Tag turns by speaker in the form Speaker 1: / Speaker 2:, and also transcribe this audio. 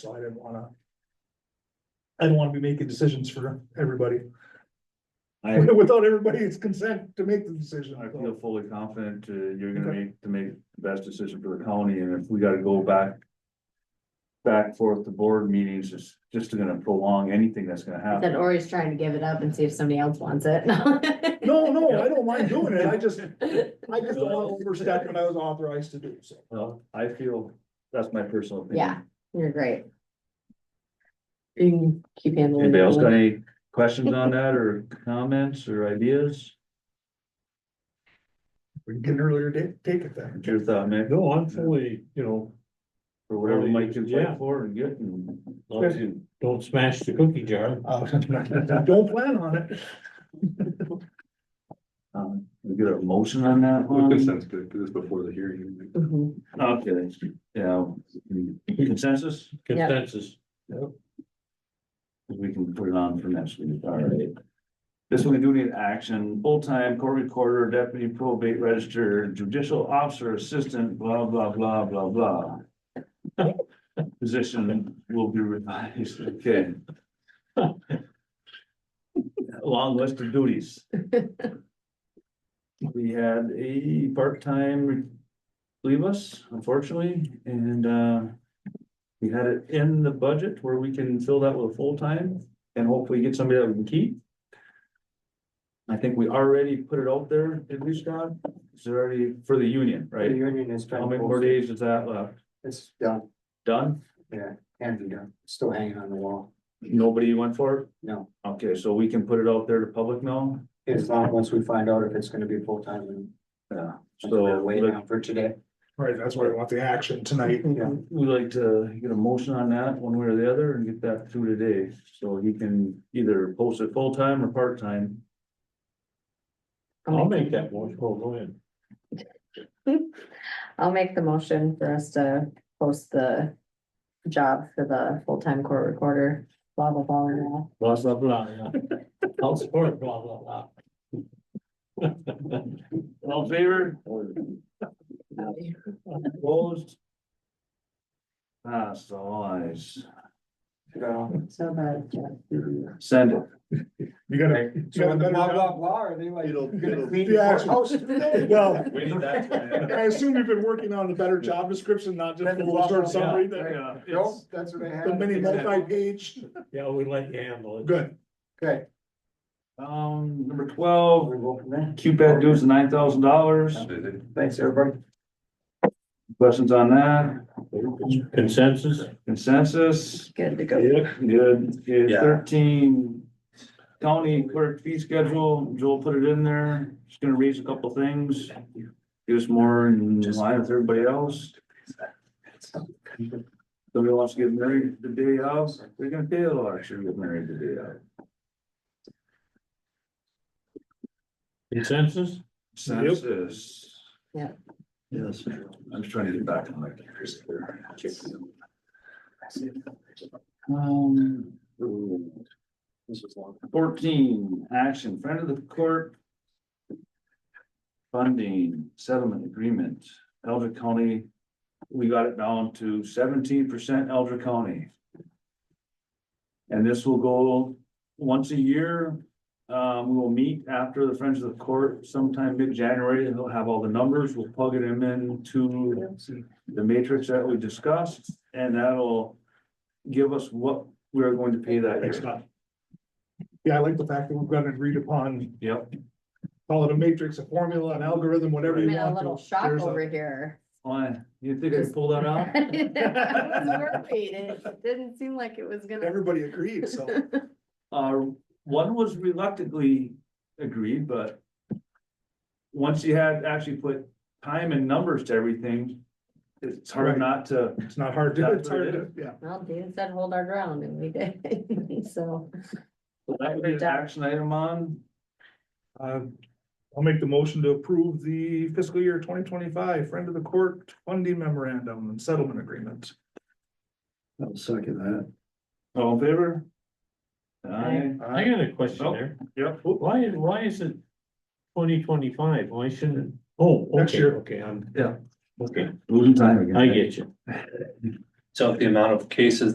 Speaker 1: So I didn't wanna. I don't wanna be making decisions for everybody,
Speaker 2: I,
Speaker 1: without everybody's consent to make the decision.
Speaker 2: I feel fully confident uh, you're gonna make, to make the best decision for the county, and if we gotta go back. Back forth to board meetings, it's just gonna prolong anything that's gonna
Speaker 3: Then
Speaker 2: happen.
Speaker 3: Ori's trying to give it up and see if somebody else wants it.
Speaker 1: No, no, I don't mind doing it, I just, I just don't wanna overstep what I was authorized to do, so.
Speaker 2: Well, I feel, that's my personal opinion.
Speaker 3: Yeah, you're great. You can keep handling.
Speaker 2: Anybody
Speaker 3: that
Speaker 2: else
Speaker 3: one.
Speaker 2: got any questions on that, or comments, or ideas?
Speaker 1: We can get an earlier date, take it then.
Speaker 2: What's your thought, Mick?
Speaker 4: No, I'm fully, you know,
Speaker 2: Or whatever Mike can
Speaker 4: Yeah.
Speaker 2: fight for and get and.
Speaker 4: long as you don't smash the cookie jar.
Speaker 1: Uh, Don't plan on it.
Speaker 2: Um, we get a motion on that
Speaker 5: Well,
Speaker 2: one?
Speaker 5: Consent's good, because it's before the hearing.
Speaker 3: Mhm.
Speaker 2: Okay, yeah, consensus?
Speaker 3: Yeah.
Speaker 4: Consensus,
Speaker 2: We can put it on for next week, all right. This one we do need action, full-time court recorder, deputy probate register, judicial officer, assistant, blah, blah, blah, blah, blah. Position will be revised, okay. Long list of duties. We had a part-time leave us, unfortunately, and, uh, we had it in the budget where we can fill that with full-time and hopefully get somebody that we can keep. I think we already put it out there, at least, God, it's already for the union,
Speaker 6: The
Speaker 2: right?
Speaker 6: union is
Speaker 2: How
Speaker 6: trying to,
Speaker 2: many more
Speaker 6: post it.
Speaker 2: days is that left?
Speaker 6: it's done,
Speaker 2: Done?
Speaker 6: yeah, can be done, It's still hanging on the wall,
Speaker 2: Nobody went for
Speaker 6: no.
Speaker 2: it? Okay, so we can put it out there to public now?
Speaker 6: As long, once we find out if it's gonna be full-time and.
Speaker 2: Yeah.
Speaker 6: we're
Speaker 2: So
Speaker 6: Waiting
Speaker 2: like,
Speaker 6: on for today.
Speaker 1: Right, that's why I want the action tonight.
Speaker 6: Yeah.
Speaker 2: we like to get a motion on that one way or the other and get that through today. So he can either post it full-time or part-time.
Speaker 4: I'll make that motion, oh, go ahead.
Speaker 3: I'll make the motion for us to post the job for the full-time court recorder, blah, blah, blah, and all.
Speaker 4: Blah, blah, blah, yeah. I'll support blah, blah, blah.
Speaker 2: All in favor? Opposed? Ah, so eyes.
Speaker 6: So
Speaker 3: So that,
Speaker 2: Send it.
Speaker 1: You gotta. you gotta
Speaker 6: when the blah,
Speaker 1: better
Speaker 6: blah,
Speaker 1: job.
Speaker 6: blah, are they like?
Speaker 5: It'll-
Speaker 6: gonna
Speaker 5: it'll-
Speaker 6: clean
Speaker 1: The
Speaker 6: the
Speaker 1: action.
Speaker 6: courthouse?
Speaker 1: Well,
Speaker 2: We need that.
Speaker 1: I assume you've been working on a better job description, not just a little short summary, the
Speaker 6: Nope, that's what I had.
Speaker 1: the mini multi-page.
Speaker 4: Yeah, we let you handle it.
Speaker 1: Good.
Speaker 6: Okay.
Speaker 2: Um, number twelve,
Speaker 6: We'll go from there.
Speaker 2: Cupid dues nine thousand dollars.
Speaker 6: Thanks, everybody.
Speaker 2: Questions on that?
Speaker 4: Consensus?
Speaker 2: Consensus?
Speaker 3: good to go.
Speaker 4: Yeah.
Speaker 2: Good. Okay,
Speaker 5: Yeah.
Speaker 2: Thirteen, county clerk fee schedule. Joel put it in there. Just gonna raise a couple things. Give us more in line with everybody else. Somebody wants to get married the day of, they're gonna pay a lot if you get married the day of.
Speaker 4: Consensus?
Speaker 2: Census.
Speaker 3: Yeah.
Speaker 2: Yes, I'm just trying to get back on my. computers here. Um. Fourteen, action, friend of the court. Funding settlement agreement, Elder County, we got it down to seventeen percent Elder County. And this will go once a year, um, we will meet after the Friends of the Court sometime mid-January, and they'll have all the numbers, we'll plug it in into the matrix that we discussed, and that'll give us what we're going to pay that
Speaker 1: Thanks,
Speaker 2: year.
Speaker 1: Todd. Yeah, I like the fact that we've got an agreed upon,
Speaker 2: Yep,
Speaker 1: call it a matrix, a formula, an algorithm, whatever
Speaker 3: I'm
Speaker 1: you
Speaker 3: in a
Speaker 1: want.
Speaker 3: little
Speaker 1: to.
Speaker 3: shock
Speaker 1: There's a-
Speaker 3: over here.
Speaker 2: why, you think I pulled that out?
Speaker 3: I was worried. It didn't seem like it was gonna.
Speaker 1: Everybody agreed, so.
Speaker 2: Uh, one was reluctantly agreed, but. Once you had actually put time and numbers to everything, it's
Speaker 1: Right.
Speaker 2: hard not to,
Speaker 1: It's not hard to,
Speaker 2: That's
Speaker 1: it's
Speaker 2: what
Speaker 1: hard
Speaker 2: it
Speaker 1: to, yeah.
Speaker 3: Well, Dean said hold our ground and we did, so.
Speaker 2: that would be an action item on.
Speaker 1: Uh, I'll make the motion to approve the fiscal year twenty twenty-five Friend of the Court Funding Memorandum and Settlement Agreement.
Speaker 5: I'll second that.
Speaker 2: All in favor?
Speaker 3: Aye.
Speaker 4: I got a question there.
Speaker 2: Yep.
Speaker 4: Why, why is it twenty twenty-five? Why shouldn't, oh,
Speaker 1: Next
Speaker 4: okay,
Speaker 1: year.
Speaker 4: okay, I'm,
Speaker 2: Yeah.
Speaker 4: okay,
Speaker 2: Losing time again.
Speaker 4: I get you.
Speaker 7: So if the amount of cases